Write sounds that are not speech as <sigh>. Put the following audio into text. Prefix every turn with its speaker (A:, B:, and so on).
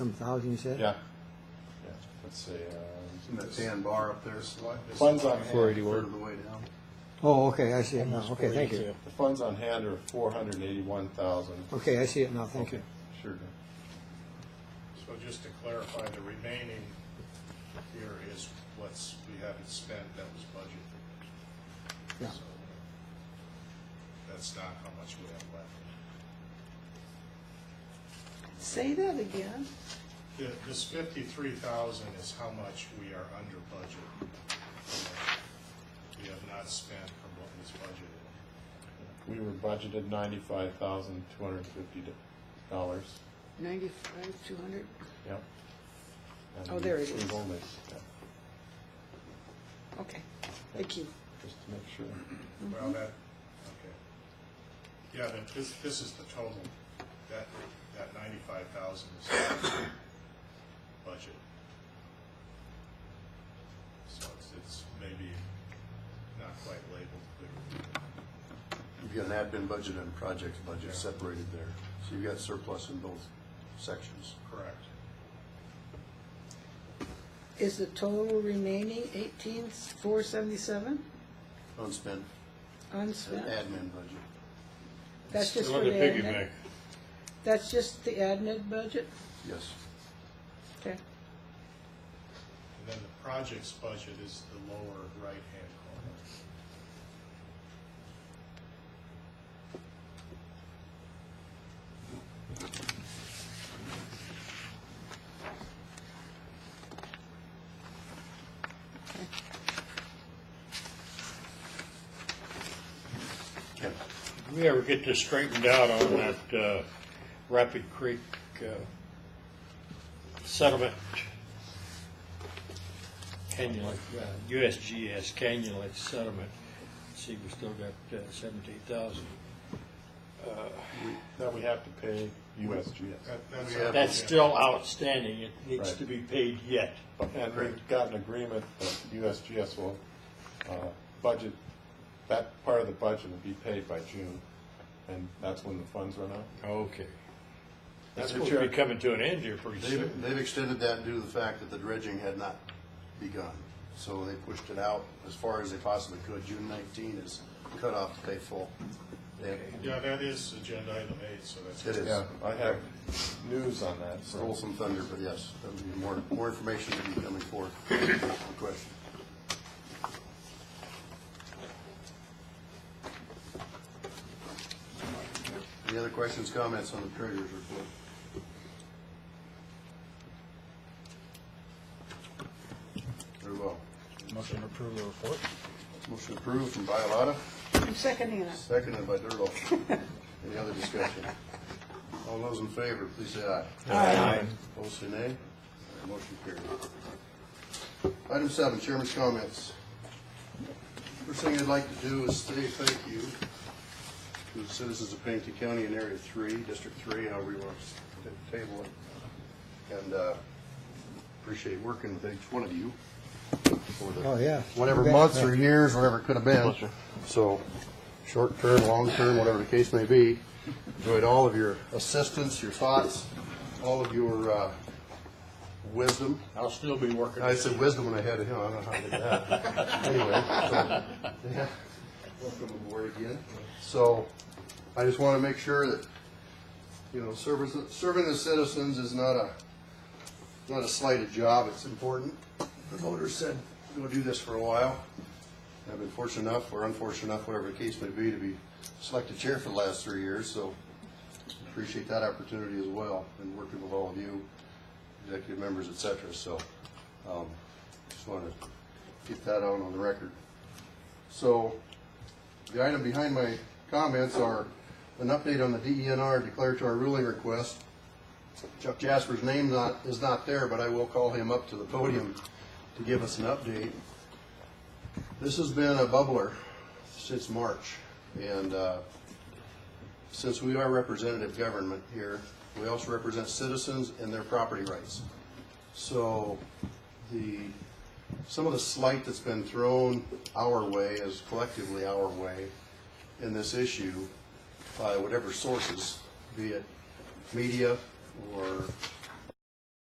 A: Some thousand, you said?
B: Yeah. Yeah, Let's see, um,
C: And that tan bar up there is like. just
B: Funds on
C: a
B: hand. Already
C: Third
B: worked.
C: of the way down.
A: Oh, okay, I see it now, okay, thank you.
B: the funds on hand are four hundred and eighty-one thousand.
A: Okay, I see it now, thank you.
B: Sure.
D: So just to clarify, the remaining here is what's, we haven't spent, that was budgeted.
A: Yeah.
D: So That's not how much we have left.
E: Say that again.
D: The- This fifty-three thousand is how much we are under budget. We have not spent from what was budgeted.
B: We were budgeted ninety-five thousand, two hundred and fifty dollars.
E: Ninety-five, two hundred?
B: Yep. And
E: Oh, there it
B: we've-
E: is.
B: We've only, yeah,
E: Okay, thank you.
B: just to make sure.
D: Well, that, okay. Yeah, then this, this is the total. That, that ninety-five thousand is budget. So it's, it's maybe not quite labeled clearly.
C: You've got an admin budget and a projects budget separated there. So you've got surplus in both sections.
D: Correct.
E: Is the total remaining eighteen, four seventy-seven
C: Unspent,
E: unspent?
C: admin budget.
E: That's just for the admin? That's just the admin budget?
C: Yes.
E: Okay.
D: And then the projects budget is the lower right-hand corner.
C: Ken,
F: If we ever get this straightened out on that uh, Rapid Creek uh, settlement cannula, uh, USGS cannula settlement, see, we still got uh, seventeen thousand.
B: That we have to pay USGS.
D: That- that's-
C: Yeah.
F: That's still outstanding, it needs to be paid yet.
B: And we've got an agreement that USGS will, uh, budget, that part of the budget will be paid by June. And that's when the funds run out.
F: Okay. That's
C: Mr.
F: supposed to be
C: Chair.
F: coming to an end here pretty soon.
C: they've, they've extended that due to the fact that the dredging had not begun. So they pushed it out as far as they possibly could. June 19 is cut off to pay full. They-
D: Yeah, that is agenda item eight, so that's.
C: It is.
B: Yeah, I have news on that, so.
C: Stole some thunder, but yes, there'll be more, more information to be coming forth. Good question. Any other questions, comments on the treasurer's report? Very well. Motion to approve the report. Motion approved from
E: I'm seconding
C: Bialotta,
E: it.
C: seconded by Dirtle. <laughs> Any other discussion? All those in favor, please say aye. Opposed, say nay. Motion carried. Item seven, chairman's comments. First thing I'd like to do is say thank you to the citizens of Pennington County in Area Three, District Three, however you want to table it. And uh, appreciate working with each one of you for the
A: Oh, yeah.
C: whatever
A: Yeah.
C: months or years, whatever it could have been. So, short term, long term, whatever the case may be, enjoyed all of your assistance, your thoughts, all of your uh, wisdom.
F: I'll still be working.
C: I said wisdom when I had it, huh? I don't know how I did that. Anyway, so, yeah, welcome aboard again. So, I just want to make sure that, you know, service, serving the citizens is not a, not a slighted job, it's important. The voters said, go do this for a while. I've been fortunate enough, or unfortunate enough, whatever the case may be, to be selected chair for the last three years, so appreciate that opportunity as well, and working with all of you, executive members, et cetera, so, um, just want to get that out on the record. So, the item behind my comments are an update on the DENR declaratory ruling request. Chuck Jasper's name not, is not there, but I will call him up to the podium to give us an update. This has been a bubbler since March, and, uh, since we are representative government here, we also represent citizens and their property rights. So the, some of the slight that's been thrown our way, is collectively our way, in this issue by whatever sources, be it media or